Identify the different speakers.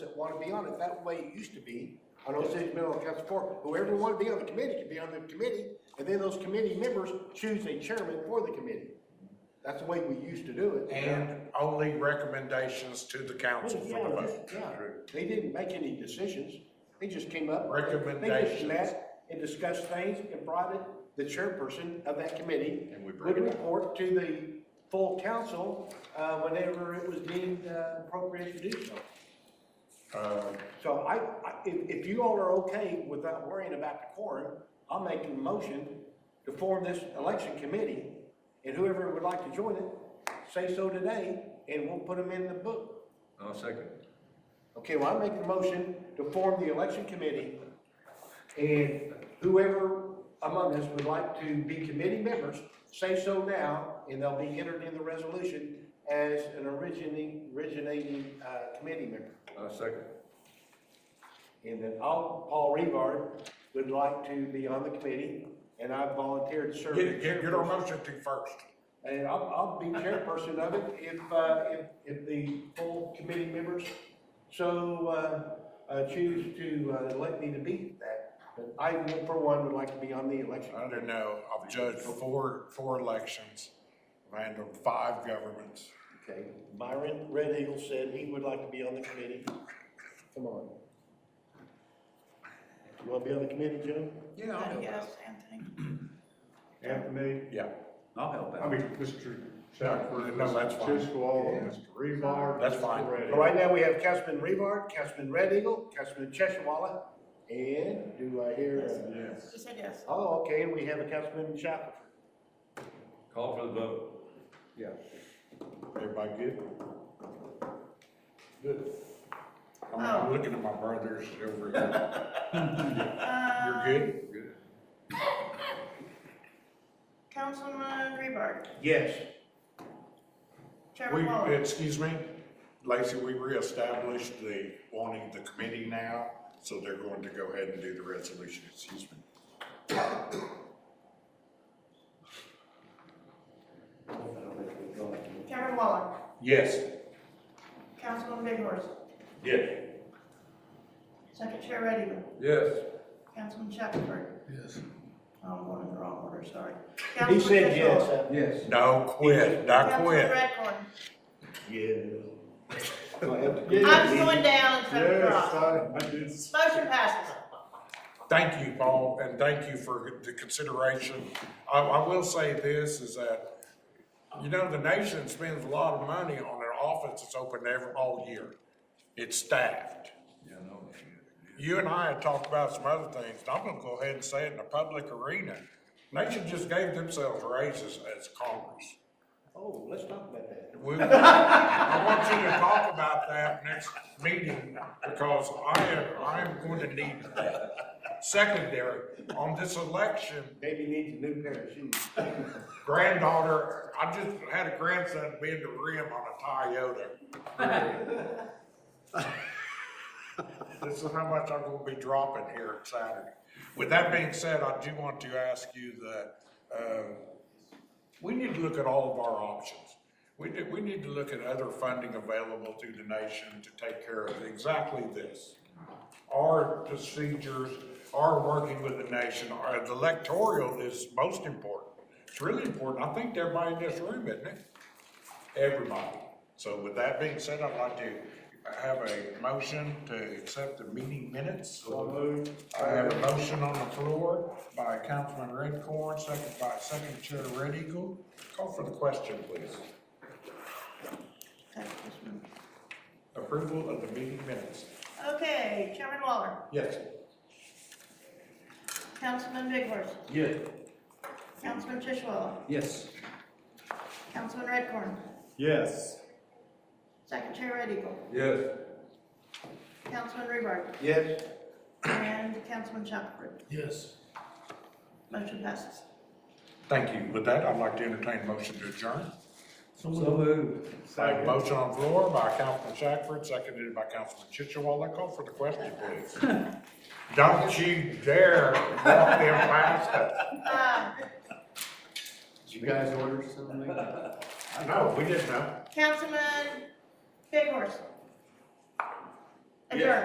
Speaker 1: want to be on it. That's the way it used to be on Osage Mineral Council Four. Whoever wanted to be on the committee could be on the committee, and then those committee members choose a chairman for the committee. That's the way we used to do it.
Speaker 2: And only recommendations to the council
Speaker 1: Well,
Speaker 2: for the
Speaker 1: yeah,
Speaker 2: vote.
Speaker 1: yeah. They didn't make any decisions. They just came up. They just
Speaker 2: Recommendations.
Speaker 1: met and discussed things and brought it, the chairperson of that committee.
Speaker 3: And we bring
Speaker 1: Would
Speaker 3: it up.
Speaker 1: report to the full council, uh, whenever it was deemed uh, appropriate to do so.
Speaker 2: Um,
Speaker 1: So I, I, if, if you all are okay without worrying about the quorum, I'll make a motion to form this election committee. And whoever would like to join it, say so today, and we'll put them in the book.
Speaker 3: I'll second.
Speaker 1: Okay, well, I make the motion to form the election committee, and whoever among us would like to be committee members, say so now, and they'll be entered in the resolution as an originating, originating, uh, committee member.
Speaker 3: I'll second.
Speaker 1: And then I'll, Paul Revard would like to be on the committee, and I volunteered to serve. as
Speaker 2: Get, get, get our
Speaker 1: chairperson.
Speaker 2: motion to first.
Speaker 1: And I'll, I'll be chairperson of it if, uh, if, if the full committee members so, uh, uh, choose to, uh, elect me to be that. But I, for one, would like to be on the election.
Speaker 2: I don't know, I've judged four, four elections, random five governments.
Speaker 1: Okay, Byron Red Eagle said he would like to be on the committee. Come on. You wanna be on the committee, Jim?
Speaker 2: Yeah,
Speaker 4: Uh, Yes, Anthony.
Speaker 5: Anthony,
Speaker 2: Yeah,
Speaker 3: I'll help
Speaker 5: I mean, Mr.
Speaker 2: No,
Speaker 5: Shackford,
Speaker 2: no, that's
Speaker 5: Mr.
Speaker 2: fine.
Speaker 5: Chiswell, Mr. Rebar.
Speaker 2: That's
Speaker 5: Mr.
Speaker 2: fine.
Speaker 5: Reddy.
Speaker 1: Well, right now, we have Councilman Revard, Councilman Red Eagle, Councilman Cheshawala, and do I hear? a-
Speaker 5: Yes.
Speaker 4: You said yes.
Speaker 1: Oh, okay, and we have a Councilman Shackelford.
Speaker 3: Call for the vote.
Speaker 2: yeah. Everybody good? Good. I'm not looking at my brothers over here. You're
Speaker 4: Uh,
Speaker 2: good? Good.
Speaker 4: Councilman Rebar,
Speaker 1: Yes.
Speaker 4: Chairman
Speaker 2: We,
Speaker 4: Waller,
Speaker 2: excuse me, Lacey, we reestablished the, wanting the committee now, so they're going to go ahead and do the resolution, excuse me.
Speaker 4: Chairman Waller,
Speaker 2: Yes.
Speaker 4: Councilman Big Horse,
Speaker 2: Yes.
Speaker 4: Second Chair Red Eagle,
Speaker 3: Yes.
Speaker 4: Councilman Shackelford. Yes. I'm going in the wrong order, sorry.
Speaker 1: He
Speaker 4: Councilman
Speaker 1: said
Speaker 4: Fitzgerald,
Speaker 1: yes. uh,
Speaker 3: Yes.
Speaker 2: No, quit, not
Speaker 4: Councilman
Speaker 2: quit.
Speaker 4: Redcorn.
Speaker 1: Yeah.
Speaker 4: I'm going down instead of
Speaker 5: Yes,
Speaker 4: across.
Speaker 5: I, I did.
Speaker 4: Motion passes.
Speaker 2: Thank you, Paul, and thank you for the consideration. I, I will say this, is that, you know, the nation spends a lot of money on their office that's open every, all year. It's staffed.
Speaker 3: Yeah, I know.
Speaker 2: You and I had talked about some other things, and I'm gonna go ahead and say it in the public arena. Nation just gave themselves raises as Congress.
Speaker 1: Oh, let's talk about that.
Speaker 2: We- I want you to talk about that next meeting, because I am, I am going to need that. Secondary, on this election,
Speaker 1: Baby needs a new pair of shoes.
Speaker 2: granddaughter, I just had a grandson bend the rim on a Toyota. This is how much I'm gonna be dropping here Saturday. With that being said, I do want to ask you that, uh, we need to look at all of our options. We do, we need to look at other funding available to the nation to take care of exactly this. Our procedures, our working with the nation, our the electoral is most important. It's really important. I think everybody in this room, isn't it? Everybody. So with that being said, I'd like to have a motion to accept the meeting minutes.
Speaker 5: So moved.
Speaker 2: I have a motion on the floor by Councilman Redcorn, second by Second Chair Red Eagle. Call for the question, please. Approval of the meeting minutes.
Speaker 4: Okay, Chairman Waller,
Speaker 2: Yes.
Speaker 4: Councilman Big Horse,
Speaker 3: Yes.
Speaker 4: Councilman Tishwala,
Speaker 3: Yes.
Speaker 4: Councilman Redcorn,
Speaker 5: Yes.
Speaker 4: Second Chair Red Eagle,
Speaker 3: Yes.
Speaker 4: Councilman Rebar,
Speaker 1: Yes.
Speaker 4: and Councilman Shackelford.
Speaker 3: Yes.
Speaker 4: Motion passes.
Speaker 2: Thank you. With that, I'd like to entertain a motion to adjourn.
Speaker 3: So moved.
Speaker 2: I have a motion on the floor by Councilman Shackford, seconded by Councilman Chichewala. Call for the question, please. Don't you dare walk them past us.
Speaker 4: Uh,
Speaker 1: Did you guys order something?
Speaker 2: No, we didn't know.
Speaker 4: Councilman Big Horse. Adjourn.